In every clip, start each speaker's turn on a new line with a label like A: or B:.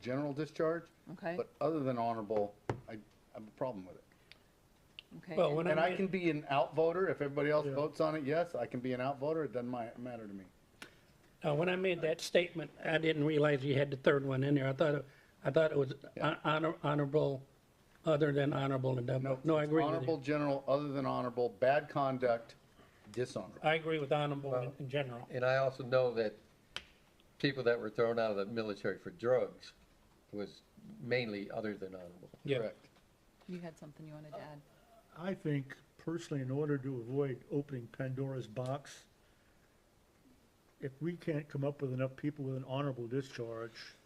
A: general discharge.
B: Okay.
A: But other than honorable, I, I have a problem with it.
B: okay.
C: Well,
B: and-
C: when
A: And I
C: I,
A: can be an outvoter, if everybody else votes on it, yes, I can be an outvoter, it doesn't mi- matter to me.
C: uh, when I made that statement, I didn't realize you had the third one in there. I thought, it- I thought it was hon- honor, honorable, other than honorable and double. No, I
A: it's
C: agree with
A: Honorable,
C: you.
A: general, other than honorable, bad conduct, dishonorable.
C: I agree with honorable in- in general.
D: And I also know that people that were thrown out of the military for drugs was mainly other than honorable.
C: Yeah.
A: Correct.
B: You had something you wanted to add.
E: I think personally, in order to avoid opening Pandora's box, if we can't come up with enough people with an honorable discharge,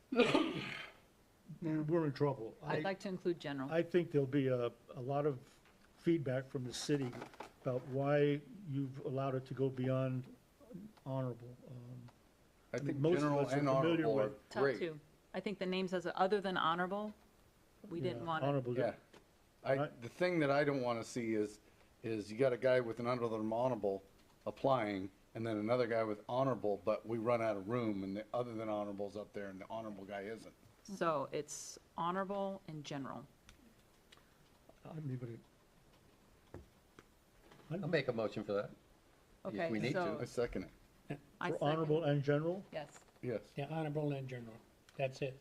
E: we're in trouble.
B: I'd
E: I,
B: like to include general.
E: I think there'll be a, a lot of feedback from the city about why you've allowed it to go beyond honorable. Um,
A: I think
E: Most of
A: general
E: us are
A: and
E: familiar
A: honorable are
E: with-
B: Top
A: great.
B: two. I think the names as, a- other than honorable, we didn't
E: yeah,
B: want it.
E: Honorable,
A: Yeah.
E: di-
A: I,
E: Right.
A: the thing that I don't want to see is, is you got a guy with an under than honorable applying, and then another guy with honorable, but we run out of room, and the other than honorable's up there, and the honorable guy isn't.
B: So it's honorable and general.
E: I'm leaving it.
D: I'll make a motion for that.
B: Okay,
D: we need to.
B: so
A: I second it,
B: I
E: For
B: second.
E: honorable and general,
B: Yes.
A: yes.
C: Yeah, honorable and general. That's it.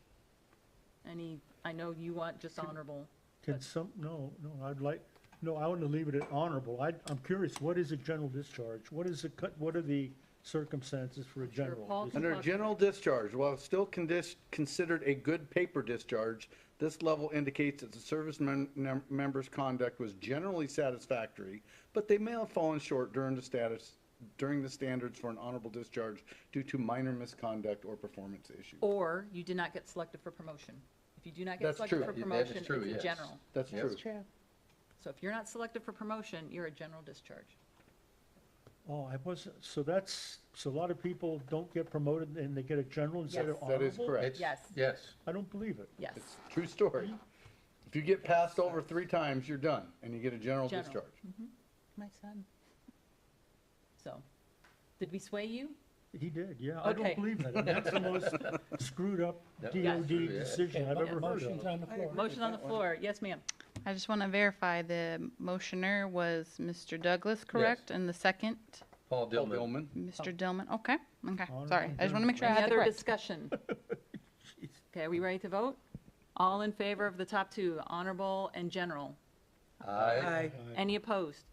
B: Any, I know you want just honorable.
E: can some, no, no, I'd like, no, I want to leave it at honorable. I, I'm curious, what is a general discharge? What is the, cut? what are the circumstances for a general?
B: Paul
E: dis-
B: can-
A: Under general discharge, while still condis- considered a good paper discharge, this level indicates that the service mem- mem- member's conduct was generally satisfactory, but they may have fallen short during the status, during the standards for an honorable discharge due to minor misconduct or performance issues.
B: Or you did not get selected for promotion. If you do not get
A: That's
B: selected
A: true.
B: for
A: Yeah,
D: that is
B: promotion, it's
D: true,
B: a
D: yes.
B: general.
A: That's
D: Yes.
A: true.
B: So if you're not selected for promotion, you're a general discharge.
E: Oh, I wasn't, so that's, so a lot of people don't get promoted and they get a general instead of
B: Yes.
E: honorable?
A: That is correct.
D: It's-
B: Yes.
D: Yes.
E: I don't believe it.
B: Yes,
A: True story. If you get passed over three times, you're done, and you get a general
B: General.
A: discharge.
B: my son. So, did we sway you?
E: He did, yeah. I
B: Okay.
E: don't believe that. And That's the most screwed up
D: That-
E: DOD
D: Yes.
E: decision I've
C: Okay,
E: ever heard
C: motion's
E: of.
C: on the floor.
B: Motion on the floor. Yes, ma'am.
F: I just want to verify the motioner was Mr. Douglas, correct? And the second,
D: Paul
A: Paul
D: Dillman.
A: Dillman,
F: Mr. Dillman, okay, okay,
E: Oh. All
F: sorry.
E: right,
F: I just want to make sure I
B: Any
F: had the
B: other
F: correct.
B: discussion? Okay, are we ready to vote? All in favor of the top two, honorable and general?
D: Aye.
B: Any opposed?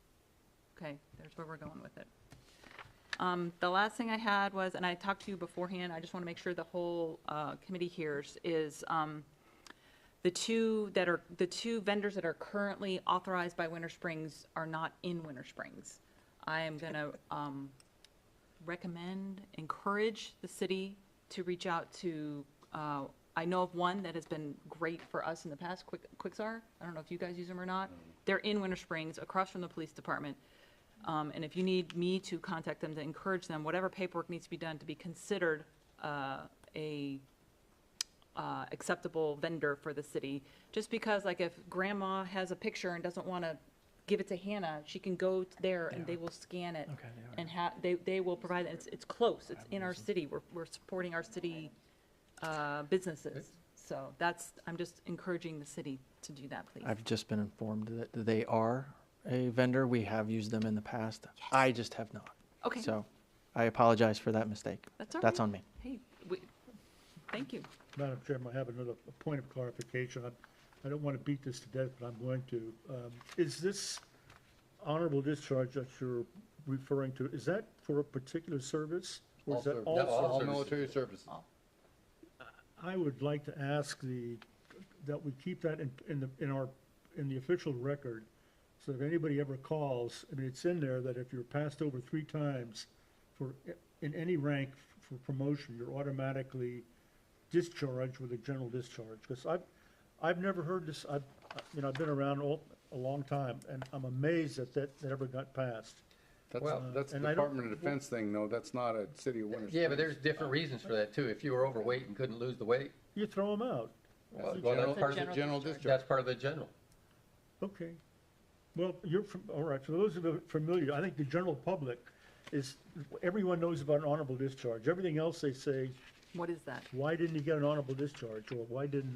B: Okay, there's where we're going with it. Um, The last thing I had was, and I talked to you beforehand, I just want to make sure the whole uh, committee hears, is um, the two that are, the two vendors that are currently authorized by Winter Springs are not in Winter Springs. I am um, going to recommend, encourage the city to reach out to, uh, I know of one that has been great for us in the past, Quick Quixar. I don't know if you guys use them or not. They're in Winter Springs, across from the police department. Um, And if you need me to contact them, to encourage them, whatever paperwork needs to be done to be considered uh, a uh, acceptable vendor for the city. Just because, like, if grandma has a picture and doesn't want to give it to Hannah, she can go t- there and they will scan it.
C: Okay, yeah.
B: And have, they, they will provide, it. it's, it's close, it's in our city, we're, we're supporting our city uh, businesses. So that's, I'm just encouraging the city to do that, please.
G: I've just been informed that they are a vendor. We have used them in the past. I just have not.
B: Okay.
G: So I apologize for that mistake.
B: That's all
G: That's
B: right.
G: on me.
B: Hey, we, thank you.
E: Madam Chairman, I have another point of clarification. I- I don't want to beat this to death, but I'm going to. Um, Is this honorable discharge that you're referring to, is that for a particular service? Or
A: all
E: is that
A: service-
E: all
D: No, all
A: all
D: services.
A: military services.
E: I would like to ask the, that we keep that in, in the, in our, in the official record, so if anybody ever calls, I mean, it's in there that if you're passed over three times for, in any rank for promotion, you're automatically discharged with a general discharge, because I've, I've never heard this, I've, you know, I've been around all, a long time, and I'm amazed that that, that ever got passed.
A: That's,
D: Well,
A: that's
E: and I don't-
A: Department of Defense thing, though, that's not a city of Winter Springs.
D: Yeah, but there's different reasons for that too. If you were overweight and couldn't lose the weight,
E: You throw them out,
D: well,
A: That's a
D: well,
A: general-
D: that's part
A: that's
D: of
A: a
D: the,
A: general
D: that's
A: discharge.
D: part of the general.
E: Okay. Well, you're, fam- all right, for those of you familiar, I think the general public is, everyone knows about an honorable discharge. Everything else they say,
B: What is that?
E: Why didn't he get an honorable discharge, or why didn't